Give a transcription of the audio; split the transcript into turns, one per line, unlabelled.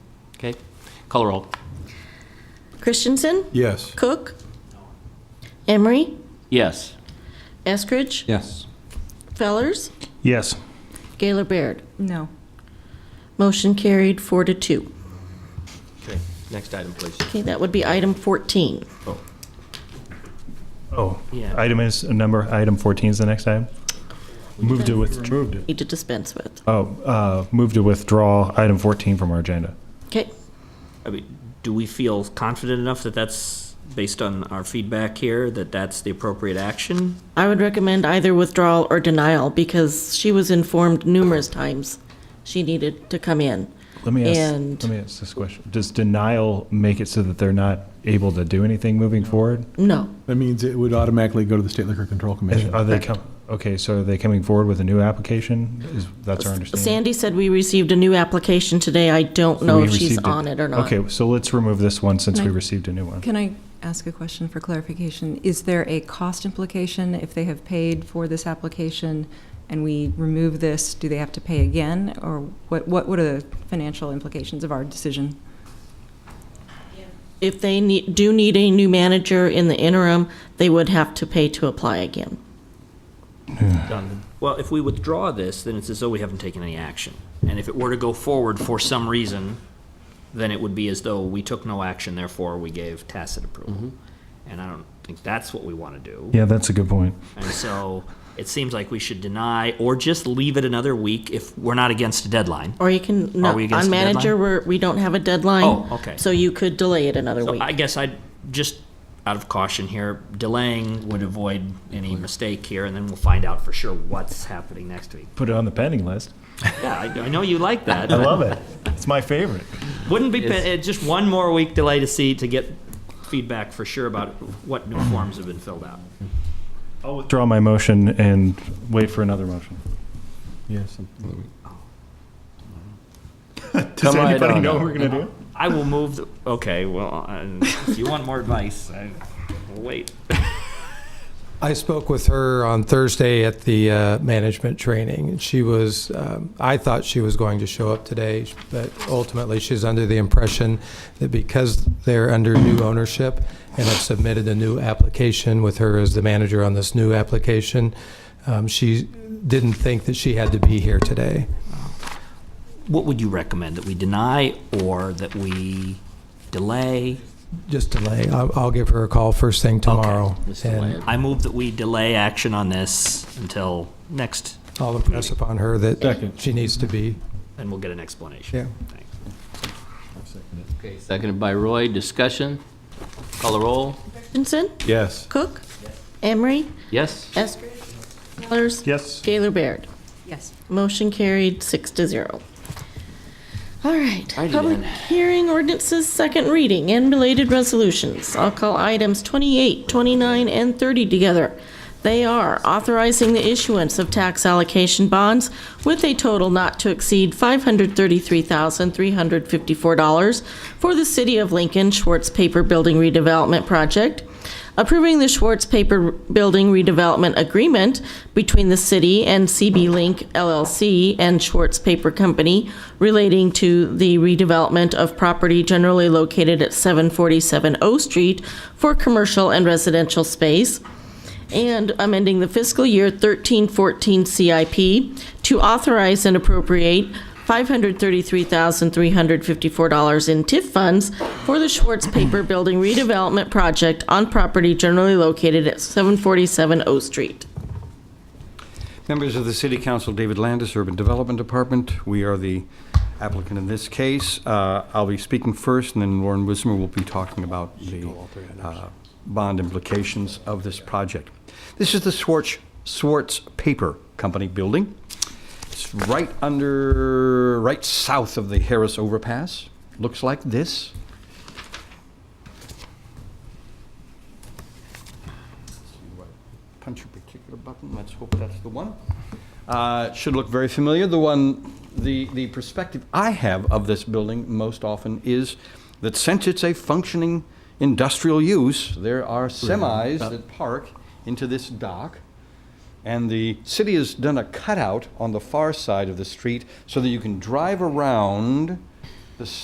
Okay, call roll.
Christensen?
Yes.
Cook? Emery?
Yes.
Eskridge?
Yes.
Fellers?
Yes.
Gaylor Baird?
No.
Motion carried four to two.
Okay, next item, please.
Okay, that would be item 14.
Oh,
Oh,
Yeah.
item is, number, item 14 is the next item? Move to withdraw.
Need to dispense with.
Oh, uh, move to withdraw item 14 from our agenda.
Okay,
I mean, do we feel confident enough that that's, based on our feedback here, that that's the appropriate action?
I would recommend either withdrawal or denial because she was informed numerous times she needed to come in.
Let me ask,
And-
let me ask this question. Does denial make it so that they're not able to do anything moving forward?
No,
That means it would automatically go to the State Liquor Control Commission.
Are they com, okay, so are they coming forward with a new application? Is, that's our understanding?
Sandy said we received a new application today. I don't know
We
if she's
received
on it or not.
Okay, so let's remove this one since we
Can I-
received a new one.
Can I ask a question for clarification? Is there a cost implication if they have paid for this application and we remove this, do they have to pay again? Or what, what what are the financial implications of our decision?
If they need, do need a new manager in the interim, they would have to pay to apply again.
Done. Well, if we withdraw this, then it's as though we haven't taken any action. And if it were to go forward for some reason, then it would be as though we took no action, therefore we gave tacit approval. And I don't think that's what we want to do.
Yeah, that's a good point.
And so it seems like we should deny or just leave it another week if we're not against a deadline.
Or you can, no,
Are we against
on
the deadline?
manager, we're, we don't have a deadline.
Oh, okay.
So you could delay it another
So
week.
I guess I'd just, out of caution here, delaying would avoid any mistake here, and then we'll find out for sure what's happening next week.
Put it on the pending list.
Yeah, I, I know you like that.
I
but
love it. It's my favorite.
Wouldn't be, pa- just one more week delay to see, to get feedback for sure about what new forms have been filled out.
I'll withdraw my motion and wait for another motion.
Yes.
Does
right
anybody
on
know
up.
what we're going to do?
I will move, the- okay, well, I- if you want more advice, I, will wait.
I spoke with her on Thursday at the uh, management training, and she was, um, I thought she was going to show up today, but ultimately she's under the impression that because they're under new ownership and have submitted a new application with her as the manager on this new application, um, she didn't think that she had to be here today.
What would you recommend, that we deny or that we delay?
Just delay. I'll I'll give her a call first thing tomorrow.
Just delay it.
And
I move that we delay action on this until next,
I'll impress upon her that
Second.
she needs to be.
and we'll get an explanation.
Yeah.
Thanks.
Okay, seconded by Roy. Discussion? Call a roll.
Christensen,
Yes.
Cook, Emery,
Yes?
Eskridge, Fellers,
Yes.
Gaylor Baird.
Yes.
Motion carried six to zero. All right.
Alrighty
Public
then.
hearing ordinances, second reading, and related resolutions. I'll call items 28, 29, and 30 together. They are authorizing the issuance of tax allocation bonds with a total not to exceed $533,354 for the City of Lincoln Schwartz Paper Building Redevelopment Project, approving the Schwartz Paper Building Redevelopment Agreement between the city and CB Link LLC and Schwartz Paper Company relating to the redevelopment of property generally located at 747 O Street for commercial and residential space, and amending the fiscal year 1314 CIP to authorize and appropriate $533,354 in TIF funds for the Schwartz Paper Building redevelopment project on property generally located at 747 O Street.
Members of the City Council, David Landis, Urban Development Department. We are the applicant in this case. Uh, I'll be speaking first, and then Lauren Wismer will be talking about the uh, bond implications of this project. This is the Schwartz, Schwartz Paper Company building. It's right under, right south of the Harris Overpass. Looks like this. punch a particular button. Let's hope that's the one. Uh, it should look very familiar. The one, the, the perspective I have of this building most often is that since it's a functioning industrial use, there are semis that park into this dock. And the city has done a cutout on the far side of the street so that you can drive around the